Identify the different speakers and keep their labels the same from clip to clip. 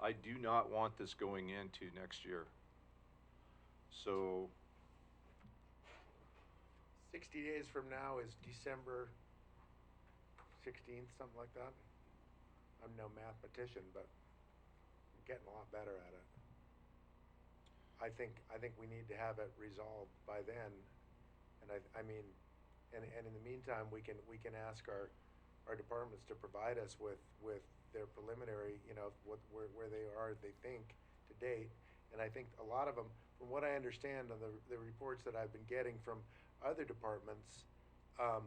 Speaker 1: I do not want this going into next year. So,
Speaker 2: Sixty days from now is December sixteenth, something like that. I'm no mathematician, but I'm getting a lot better at it. I think, I think we need to have it resolved by then, and I, I mean, and, and in the meantime, we can, we can ask our, our departments to provide us with, with their preliminary, you know, what, where, where they are, they think, to date, and I think a lot of them, from what I understand on the, the reports that I've been getting from other departments, um,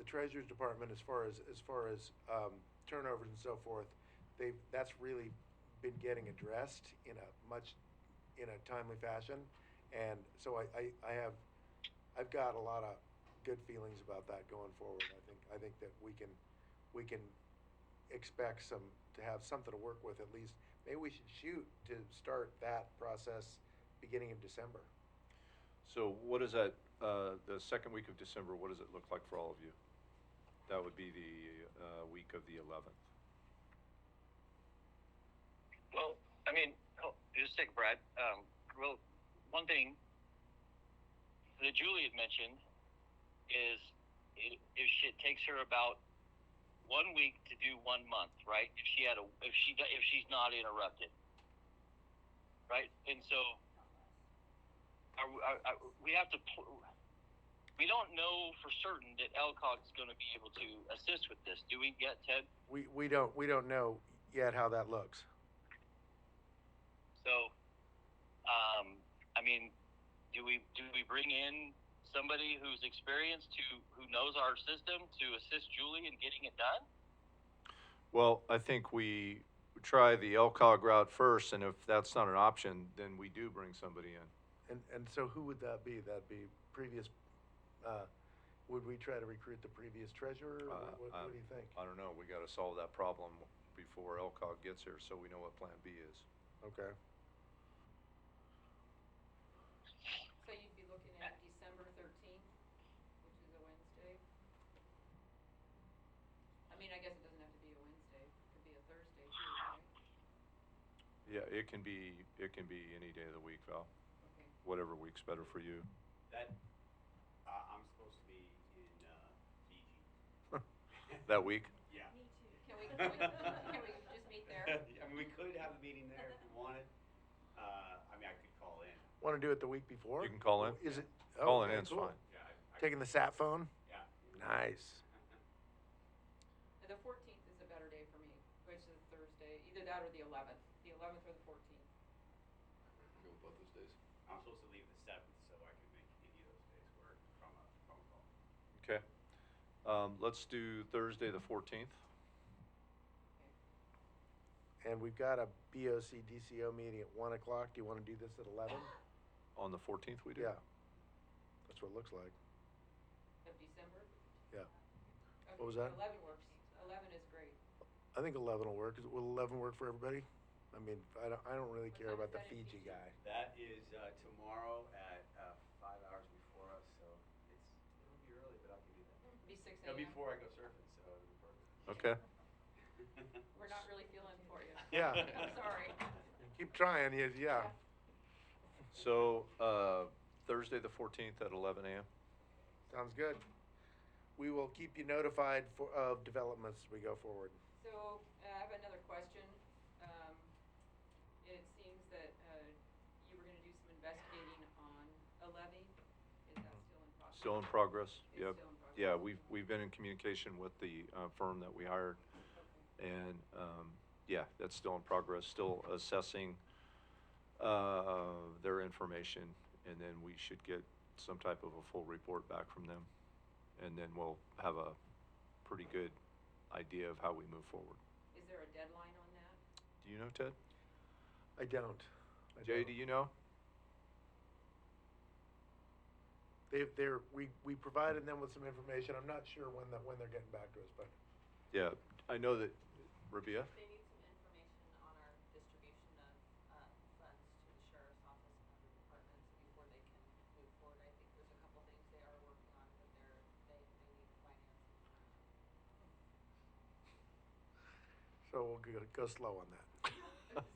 Speaker 2: the treasurer's department, as far as, as far as, um, turnovers and so forth, they've, that's really been getting addressed in a much, in a timely fashion. And so I, I, I have, I've got a lot of good feelings about that going forward. I think, I think that we can, we can expect some, to have something to work with at least. Maybe we should shoot to start that process beginning of December.
Speaker 1: so what is that, uh, the second week of December, what does it look like for all of you? That would be the, uh, week of the eleventh.
Speaker 3: Well, I mean, oh, just take a Brad. Um, well, one thing that Julie had mentioned is i- if she, it takes her about one week to do one month, right? If she had a, if she, do- if she's not interrupted, right? And so, are, we- are, are, we have to. Pl- we don't know for certain that Elcock is going to be able to assist with this. Do we get Ted?
Speaker 2: We, we don't, we don't know yet how that looks.
Speaker 3: So, um, I mean, do we do we bring in somebody who's experienced to who knows our system to assist Julie in getting it done?
Speaker 1: Well, I think we try the LCOG route first, and if that's not an option, then we do bring somebody in.
Speaker 2: And, and so who would that be? That'd be previous, uh, would we try to recruit the previous treasurer?
Speaker 1: Uh,
Speaker 2: or What, what-
Speaker 1: um,
Speaker 2: what do you think?
Speaker 1: I don't know, we gotta solve that problem before LCOG gets here, so we know what Plan B is.
Speaker 2: Okay.
Speaker 4: So you'd be looking at December thirteenth, which is a Wednesday? I mean, I guess it doesn't have to be a Wednesday, it could be a Thursday too, right?
Speaker 1: Yeah, it can be, it can be any day of the week, Val,
Speaker 4: Okay,
Speaker 1: whatever week's better for you.
Speaker 5: That, uh, I'm supposed to be in, uh, Fiji.
Speaker 1: That week?
Speaker 5: Yeah.
Speaker 6: Me too.
Speaker 4: Can we- can we- can we just meet there?
Speaker 5: I mean, we could have a meeting there if we wanted. Uh, I mean, I could call in.
Speaker 2: Want to do it the week before?
Speaker 1: You can call in.
Speaker 2: Is it? oh,
Speaker 1: Calling
Speaker 2: okay,
Speaker 1: in's
Speaker 2: cool.
Speaker 1: fine.
Speaker 5: Yeah, I, I,
Speaker 2: Taking the sat phone?
Speaker 5: yeah.
Speaker 2: Nice.
Speaker 4: and the fourteenth is a better day for me, which is a Thursday, either that or the eleventh, the eleventh or the fourteenth.
Speaker 7: Go with both those days.
Speaker 5: I'm supposed to leave the seventh, so I could make any of those days work from a phone call.
Speaker 1: Okay. Um, let's do Thursday, the fourteenth.
Speaker 2: And we've got a BOC DCO meeting at one o'clock. Do you want to do this at eleven?
Speaker 1: On the fourteenth, we do?
Speaker 2: Yeah. That's what it looks like.
Speaker 4: Of December?
Speaker 2: Yeah.
Speaker 4: Okay,
Speaker 2: What was that?
Speaker 4: Eleven works, eleven is great.
Speaker 2: I think eleven will work. Is- Will eleven work for everybody? I mean, I don't, I don't really
Speaker 4: What
Speaker 2: care
Speaker 4: time
Speaker 2: about
Speaker 4: is
Speaker 2: the
Speaker 4: that in
Speaker 2: Fiji
Speaker 4: Fiji?
Speaker 2: guy.
Speaker 5: That is, uh, tomorrow at, uh, five hours before us, so it's, it'll be early, but I can do that.
Speaker 4: It'd Be six AM.
Speaker 5: No, before I go surfing, so it'll be perfect.
Speaker 1: Okay,
Speaker 4: We're not really feeling for you.
Speaker 2: Yeah.
Speaker 4: I'm sorry.
Speaker 2: Keep trying, yeah, yeah.
Speaker 1: so, uh, Thursday, the fourteenth at eleven AM.
Speaker 2: Sounds good. We will keep you notified for, of developments as we go forward.
Speaker 4: So, uh, I have another question. Um, it seems that, uh, you were gonna do some investigating on a levy. Is that still in process?
Speaker 1: Still in progress? Yep.
Speaker 4: It's still in progress.
Speaker 1: Yeah, we've, we've been in communication with the, uh, firm that we hired.
Speaker 4: Okay.
Speaker 1: And, um, yeah, that's still in progress, still assessing, uh, their information. And then we should get some type of a full report back from them. And then we'll have a pretty good idea of how we move forward.
Speaker 4: Is there a deadline on that?
Speaker 1: Do you know, Ted?
Speaker 2: I don't. I
Speaker 1: Jay,
Speaker 2: don't.
Speaker 1: do you know?
Speaker 2: They, they're, we, we provided them with some information. I'm not sure when that, when they're getting back to us, but
Speaker 1: Yeah, I know that, Rabia?
Speaker 6: They need some information on our distribution of, uh, funds to the sheriff's office and other departments before they can move forward. I think there's a couple things they are working on, but they're, they, they need financing.
Speaker 2: so we'll go, go slow on that.